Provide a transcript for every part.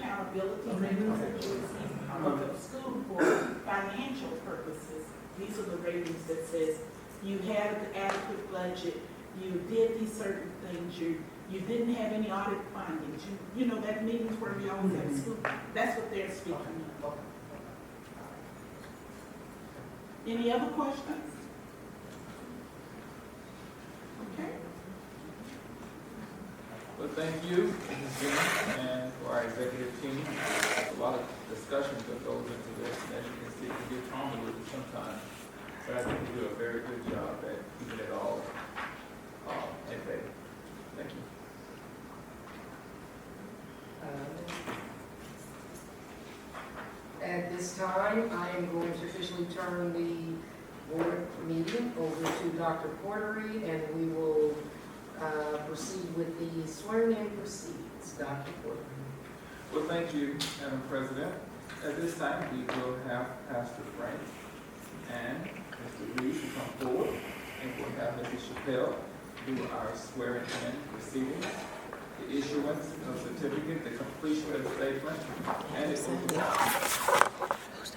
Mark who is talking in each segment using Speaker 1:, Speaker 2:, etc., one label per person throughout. Speaker 1: liability mechanism for the school for financial purposes. These are the ratings that says you had an adequate budget, you did these certain things, you, you didn't have any audit findings, you, you know, that meetings where we always have school, that's what they're speaking of. Any other questions? Okay,
Speaker 2: Well, thank you, Ms. Jennings, and for our executive team. A lot of discussion that goes into this, and as you can see, we get comedy with it sometimes. But I think we do a very good job at keeping it all, uh, at bay. Thank you.
Speaker 3: Uh, At this time, I am going to officially turn the board meeting over to Dr. Portery, and we will uh, proceed with the swearing-in proceedings. Dr. Portery.
Speaker 2: Well, thank you, Madam President. At this time, we will have Pastor Frank and Mr. Reed to come forward, and we'll have Mr. Chappelle do our swearing-in proceedings, the issuance of certificate, the completion of statement, and the oath of office.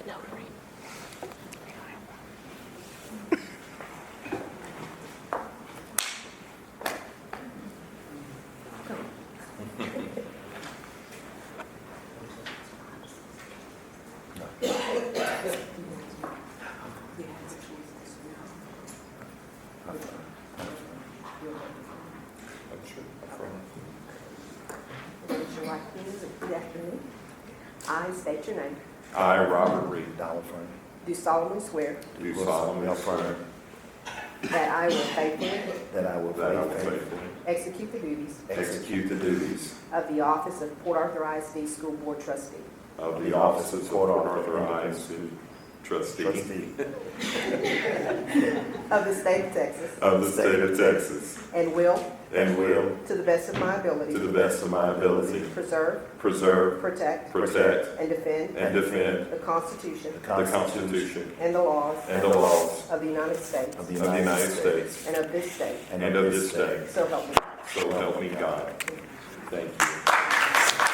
Speaker 4: Raise your right hand and repeat after me. I state your name.
Speaker 5: I, Robert Reed,
Speaker 6: Donald Fern.
Speaker 4: Do solemnly swear
Speaker 5: do solemnly affirm
Speaker 4: that I will faithfully
Speaker 6: That I will
Speaker 5: that I will
Speaker 6: faithfully
Speaker 5: faithfully
Speaker 4: execute the duties
Speaker 5: execute the duties
Speaker 4: of the office of Port Arthur ISD School Board Trustee
Speaker 5: of the office of Port Arthur ISD trustee
Speaker 6: Trustee.
Speaker 4: of the state of Texas
Speaker 5: of the state of Texas
Speaker 4: and will,
Speaker 5: and will,
Speaker 4: to the best of my
Speaker 5: to
Speaker 4: ability,
Speaker 5: the best of my ability,
Speaker 4: preserve,
Speaker 5: preserve,
Speaker 4: protect,
Speaker 5: protect,
Speaker 4: and defend
Speaker 5: and defend
Speaker 4: the Constitution
Speaker 6: The
Speaker 5: the Constitution
Speaker 4: and the laws
Speaker 5: and the laws
Speaker 4: of the United States
Speaker 6: Of the
Speaker 5: of the United
Speaker 6: United States.
Speaker 5: States,
Speaker 4: and of this state.
Speaker 5: and of this state.
Speaker 4: So help me.
Speaker 5: So help me God. Thank you.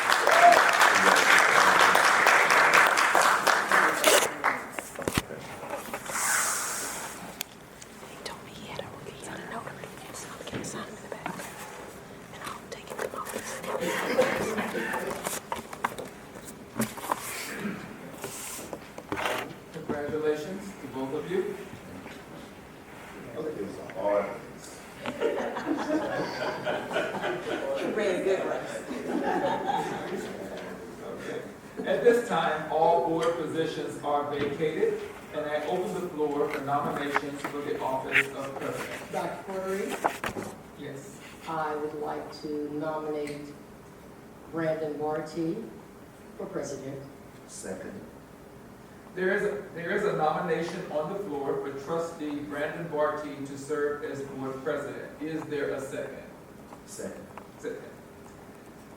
Speaker 7: He told me he had a, he had a notary, so I'm gonna sign him in the back. And I'll take him to my office and
Speaker 2: Congratulations to both of you.
Speaker 5: All right.
Speaker 4: You ran good race.
Speaker 2: Okay. At this time, all board positions are vacated, and I open the floor for nominations for the office of president.
Speaker 3: Dr. Portery,
Speaker 2: Yes.
Speaker 3: I would like to nominate Brandon Barty for president.
Speaker 6: Second.
Speaker 2: There is, a- there is a nomination on the floor for trustee Brandon Barty to serve as board president. Is there a second?
Speaker 6: Second.
Speaker 2: Second.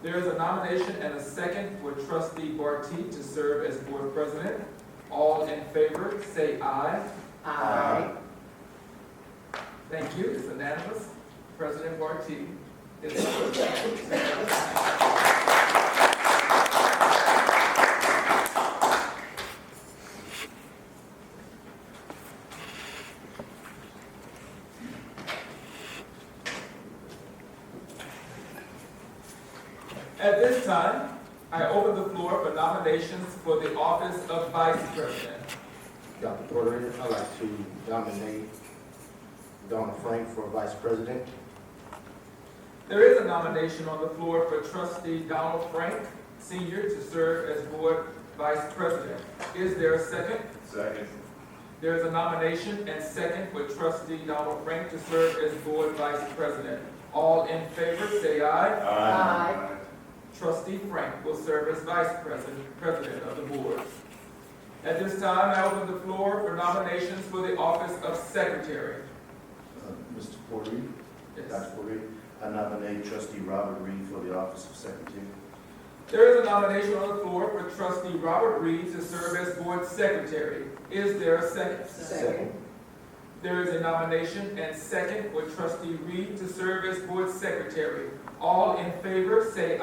Speaker 2: There is a nomination and a second for trustee Barty to serve as board president. All in favor, say aye.
Speaker 3: I,
Speaker 2: Thank you, it's unanimous. President Barty is. At this time, I open the floor for nominations for the office of vice president.
Speaker 8: Dr. Porter, I'd like to nominate Donna Frank for vice president.
Speaker 2: There is a nomination on the floor for trustee Donald Frank, Sr. to serve as board vice president. Is there a second?
Speaker 5: Second.
Speaker 2: There is a nomination and second for trustee Donald Frank to serve as board vice president. All in favor, say aye.
Speaker 3: Aye.
Speaker 2: Trustee Frank will serve as vice president, president of the board. At this time, I open the floor for nominations for the office of secretary.
Speaker 6: Uh, Mr. Porter,
Speaker 2: Yes.
Speaker 6: Dr. Porter, I nominate trustee Robert Reed for the office of secretary.
Speaker 2: There is a nomination on the floor for trustee Robert Reed to serve as board secretary. Is there a second?
Speaker 3: Second.
Speaker 2: There is a nomination and second for trustee Reed to serve as board secretary. All in favor, say